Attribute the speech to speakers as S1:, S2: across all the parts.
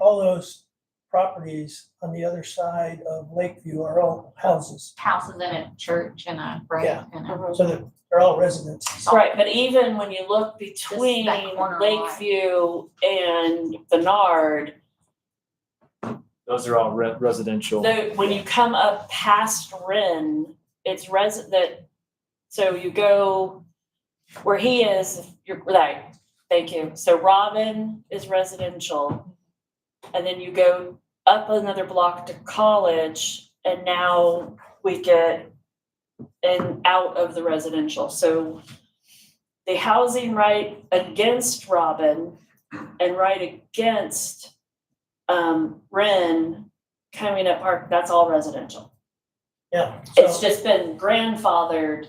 S1: all those properties on the other side of Lakeview are all houses.
S2: houses and a church and a
S1: Yeah.
S2: break and a.
S1: So they're, they're all residences.
S3: Uh-huh. Right, but even when you look between
S2: corner
S3: Lakeview and Bernard,
S4: Those are all re- residential.
S3: though, when you come up past Ren, it's res, that, so you go where he is, you're, right, thank you. So Robin is residential. And then you go up another block to college and now we get and out of the residential, so the housing right against Robin and right against um Ren Calumet Park, that's all residential.
S1: Yeah.
S3: It's
S1: So
S3: just been grandfathered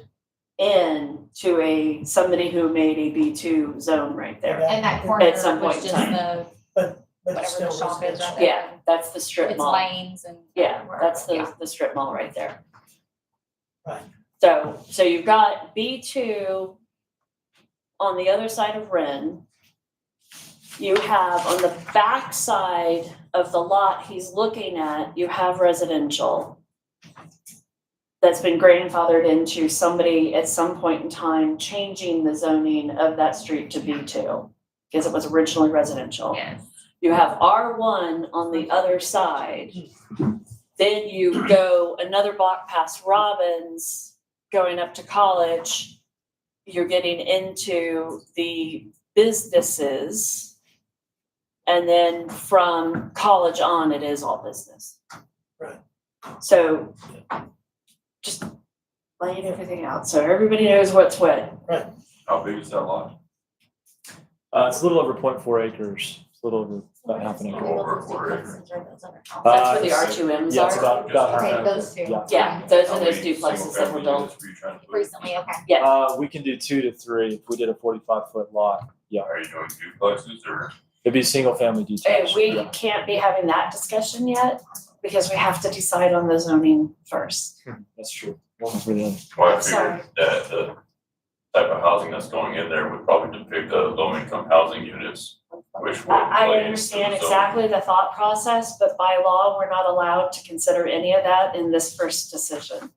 S3: in to a, somebody who made a B two zone right there.
S1: Yeah.
S2: And that corner,
S3: At some
S2: which is
S3: point in time.
S2: the,
S1: but it's
S2: whatever the
S1: still
S2: shop is right
S1: residential.
S2: there.
S3: Yeah, that's the strip
S2: it's
S3: mall.
S2: lanes and.
S3: Yeah,
S2: wherever,
S3: that's
S2: yeah.
S3: the, the strip mall right there.
S1: Right.
S3: So, so you've got B two on the other side of Ren. You have on the back side of the lot he's looking at, you have residential that's been grandfathered into somebody at some point in time changing the zoning of that street to B two because it was originally residential.
S2: Yes.
S3: You have R one on the other side. Then you go another block past Robbins, going up to college. You're getting into the businesses. And then from college on, it is all business.
S1: Right.
S3: So just laying everything out, so everybody knows what's what.
S5: How big is that lot?
S4: Uh, it's a little over 0.4 acres. It's a little over about half an acre.
S5: Over a quarter acre.
S4: Uh,
S3: That's where the R
S4: it's-
S3: two Ms
S4: Yeah, it's
S3: are.
S4: about, about half
S2: Take
S4: an
S2: those
S4: acre.
S2: two.
S4: Uh, Yeah.
S3: Yeah, those are
S5: How
S3: those
S5: many
S3: duplexes that were
S5: single-family
S3: built.
S5: units were you trying to put?
S2: Recently, okay.
S3: Yes.
S4: Uh, we can do two to three if we did a 45 foot lot. Yeah.
S5: Are you doing duplexes or?
S4: It'd be single family
S3: Uh,
S4: detached.
S3: we
S4: yeah.
S3: can't be having that discussion yet because we have to decide on the zoning first.
S4: That's true. One for the other.
S5: Well, I
S3: Sorry.
S5: figured that the type of housing that's going in there would probably depict the low income housing units, which would.
S3: I,
S5: play
S3: I
S5: into
S3: understand
S5: the zone.
S3: exactly the thought process, but by law, we're not allowed to consider any of that in this first decision.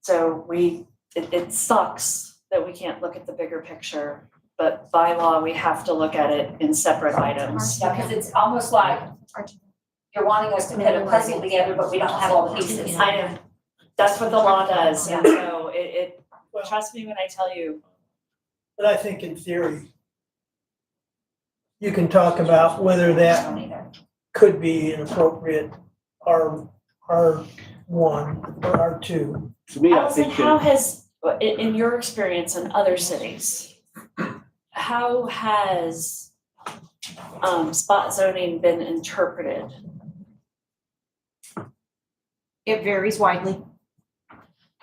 S3: So we, it, it sucks that we can't look at the bigger picture, but by law, we have to look at it in separate items.
S6: Yeah, because it's almost like you're wanting us to put a puzzle together, but we don't have all the pieces.
S3: I know, that's what the law does, and so it, it,
S1: Well-
S3: trust me when I tell you,
S1: But I think in theory, you can talk about whether that could be an appropriate R, R one or R two.
S7: To me, I
S3: Allison,
S7: think
S3: how
S7: that,
S3: has, in, in your experience in other cities, how has, um, spot zoning been interpreted?
S6: It varies widely.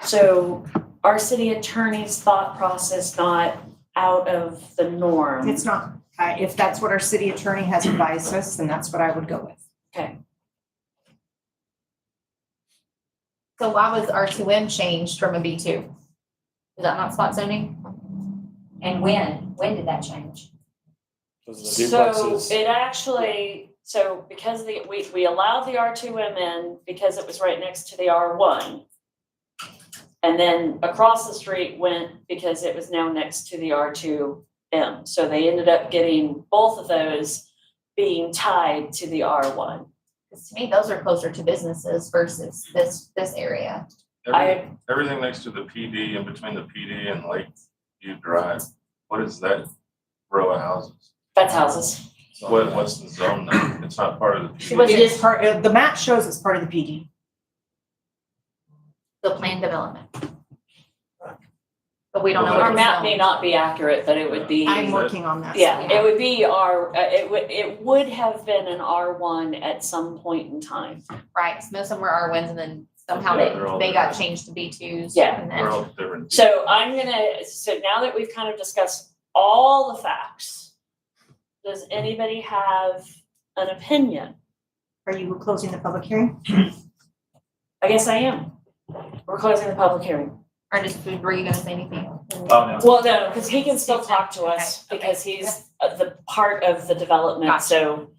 S3: So our city attorney's thought process not out of the norm?
S6: It's not, uh, if that's what our city attorney has advised us, then that's what I would go with.
S2: So why was R two M changed from a B two? Is that not spot zoning?
S8: And when, when did that change?
S4: Those are the
S3: So
S4: duplexes.
S3: it actually, so because the, we, we allowed the R two M in because it was right next to the R one. And then across the street went because it was now next to the R two M. So they ended up getting both of those being tied to the R one.
S2: Because to me, those are closer to businesses versus this, this area.
S3: I,
S5: Everything next to the PD and between the PD and Lakeview Drive, what is that row of houses?
S3: that's houses.
S5: What, what's the zone now? It's not part of the
S3: She
S5: PD.
S3: was-
S6: It is part, uh, the map shows it's part of the PD.
S2: the planned development. But we don't know what
S3: Our
S2: it's
S3: map may
S2: zoned.
S3: not be accurate, but it would be.
S6: I'm working on that.
S3: Yeah, it would be our, uh, it would, it would have been an R one at some point in time.
S2: Right, so most of them were R ones and then somehow
S5: Yeah,
S2: they,
S5: they're all
S2: they got
S5: different.
S2: changed to B twos.
S3: Yeah.
S2: And
S5: They're
S2: then,
S5: all different.
S3: So I'm gonna, so now that we've kind of discussed all the facts, does anybody have an opinion?
S6: Are you closing the public hearing?
S3: I guess I am. We're closing the public hearing.
S2: or just, were you gonna say anything?
S4: Oh, no.
S3: Well, no, because he can still talk to us
S2: Okay, okay.
S3: because he's uh, the part of the development, so